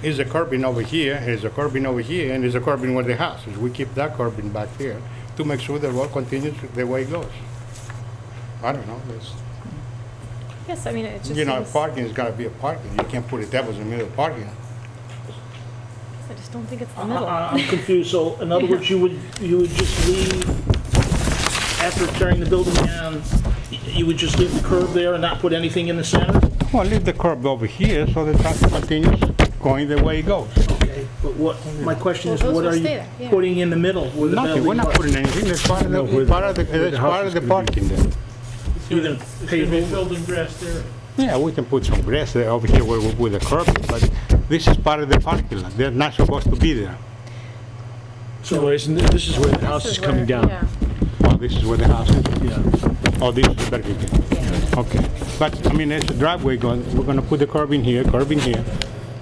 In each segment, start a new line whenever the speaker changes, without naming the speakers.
Here's a curbing over here, here's a curbing over here, and there's a curbing where the house is. We keep that curbing back there to make sure the road continues the way it goes. I don't know, it's,
Yes, I mean, it just
you know,
seems,
parking's gotta be a parking. You can't put a devil's in the middle of parking.
I just don't think it's
Uh,
the
I-
middle.
I- I'm confused, so in other words, you would, you would just leave, after tearing the building down, y- you would just leave the curb there and not put anything in the center?
Well, leave the curb over here so the traffic continues going the way it goes.
Okay, but what, my question
Well,
is,
those
what
will
are
stay
you
there, yeah.
putting in the middle where the
Nothing, we're
building
not
was?
putting anything, that's part of the, it's part of the, that's part of the parking there.
You're gonna pave over?
building grass there.
Yeah, we can put some grass there over here where we with the curb, but this is part of the parking lot. They're not supposed to be there.
So
So isn't, it- this is where the house
This
is
where-
uh, coming down.
yeah.
Oh, this is where the house is.
Yeah.
Oh, this is Burger King. Okay. But, I mean, there's a driveway going, we're gonna put the curb in here, curb in here,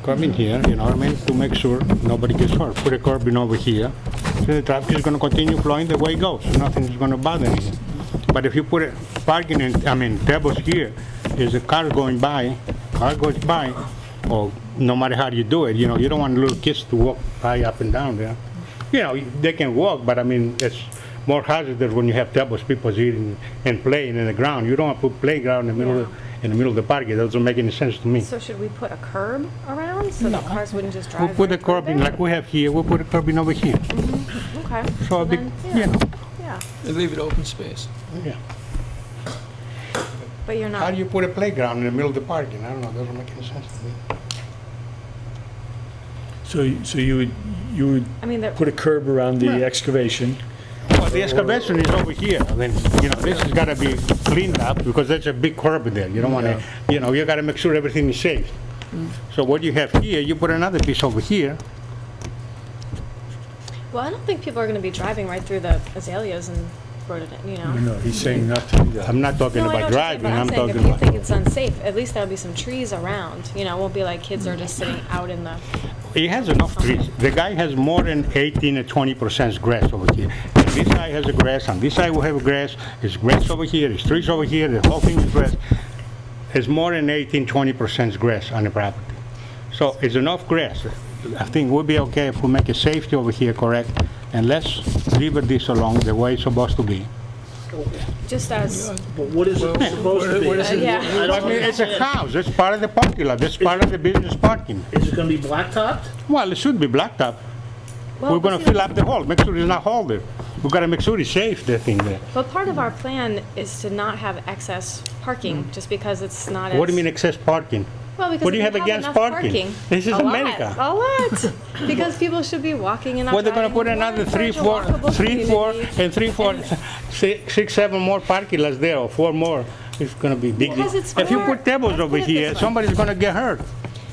curb in here, you know what I mean? To make sure nobody gets hurt. Put a curb in over here. So the traffic is gonna continue flowing the way it goes. Nothing's gonna bother anything. But if you put a parking in, I mean, tables here, is a car going by, car goes by, or no matter how you do it, you know, you don't want little kids to walk high up and down there. You know, they can walk, but I mean, it's more hazardous when you have tables, people eating and playing in the ground. You don't want to put playground in the middle, of- in the middle of the park. It doesn't make any sense to me.
So should we put a curb around so the cars wouldn't just
We
drive?
put a
right
curb in,
there?
like we have here, we put a curb in over here.
Okay.
So, be-
then,
you know,
Yeah,
They leave it open space.
yeah.
but you're
How
not,
do you put a playground in the middle of the parking? I don't know, doesn't make any sense to me.
So, y- so you would, you would
I mean, there-
put a curb around the excavation?
Well, the excavation is over here, I mean, you know, this has gotta be cleaned up, because there's a big curb there, you don't wanna, you know, you gotta make sure everything is safe. So what you have here, you put another piece over here,
well, I don't think people are going to be driving right through the azaleas and rhododendron, you know?
No, he's saying not to do that.
I'm not talking
No, I know
about
what you're saying,
driving,
but
I'm
saying
talking
If you think
about,
it's unsafe, at least there'll be some trees around, you know, it won't be like kids are just sitting out in the,
he has enough trees, the guy has more than eighteen or twenty percent grass over here. And This side has a grass, on this side we have grass, there's grass over here, there's trees over here, the whole thing is grass. There's more than 18, 20 percent grass on the property. So it's enough grass. I think we'll be okay if we make a safety over here correct, and let's leave this along the way it's supposed to be.
just as,
but what is it supposed to be?
it- Uh, yeah.
I
I
don't
mean, it's a
understand.
house, it's part of the parking lot, it's part of the business parking.
Is it gonna be blacktopped?
Well, it should be blacktop.
well,
We're gonna
but Oh, see,
fill up the hole, make sure it's not hole there. We gotta make sure it's safe, that thing there.
But part of our plan is to not have excess parking, just because it's not as.
Mm. What do you mean excess parking?
Well, because
What do
if
you have against
enough
parking? This is
a lot,
America.
A lot, because people should be walking and not
Well, they're gonna
driving.
put
We
another
encourage
three,
a
four,
walkable
three, four,
community.
and three, four, six, six, seven more parking lots there, or four more. It's gonna be big.
Because it's
If you
more-
put tables
let's
over
put it this
here,
way.
somebody's gonna get hurt.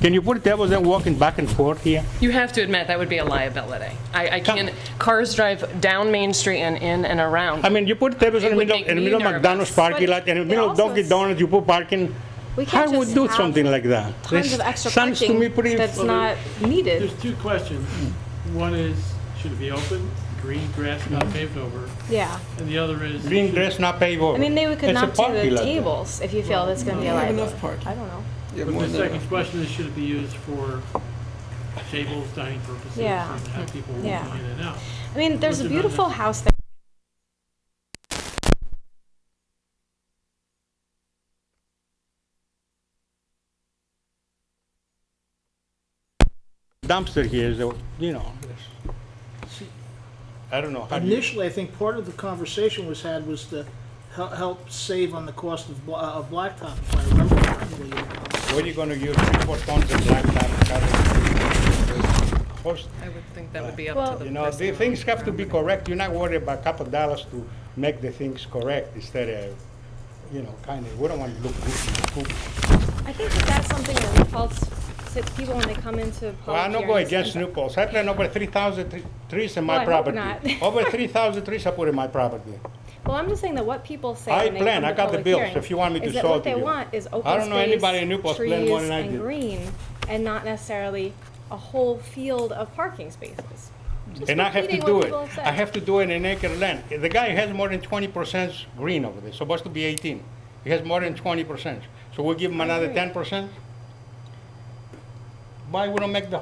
Can you put tables and walking back and forth here?
You have to admit, that would be a liability. I, I
Come.
can, cars drive down Main Street and in and around.
I mean, you put tables in
It
the
would
middle,
make
in the
me
middle of
nervous.
McDonald's parking
But
lot, in the
it
middle of
also
Dunkin'
is-
Donuts, you put parking.
We can't
How would
just
do
have
something like that?
Tons
This
of extra
Sounds to me
parking
pretty.
that's not needed.
There's two questions. One is, should it be open, green grass not paved over?
Yeah,
And the other is.
Green grass, not paved over.
I mean, they could
It's a
knock to
parking
the
lot there.
tables if you feel that's going to be a
You have
liability.
enough parking.
I don't know.
You have
But
more
the
than
second
enough.
question is, should it be used for tables, dining purposes?
Yeah.
And have people walking in
Yeah.
and out?
I mean, there's a
Those are not
beautiful
necessary.
house there.
Dumpster here is, the- you know, this- I don't know. how do you-
Initially, I think part of the conversation was had was to hel- help save on the cost of bla- uh, of blacktop, if I remember correctly.
What are you gonna use three, four tons of blacktop? Horse-
I would think that would be
Well-
up to
You
the
know, the
person.
things have to be correct. You're not worried about a couple dollars to make the things correct instead of, you know, kind of, we don't want to look goofy.
I think that that's something that defaults to people when they come into
Well, I don't
public
go
hearings.
against new poles. I plant over 3,000 tre- trees in
Well,
my
I hope
property.
not.
Over 3,000 trees I put in my property.
Well, I'm just saying that what people say
I
when they
plan.
come
I
to
got the
public
bills,
hearings
if you want me to
is that
show it
what
to
they
you.
want is open
I don't know
space,
anybody in Newport plan more
trees,
than I
and
do.
green, and not necessarily a whole field of parking spaces. Just
And I have to
repeating
do
what
it.
people have
I
said.
have to do it in acre land. The guy has more than 20% green over there, supposed to be 18. He has more than 20%. So we give him another 10%? Why we don't make the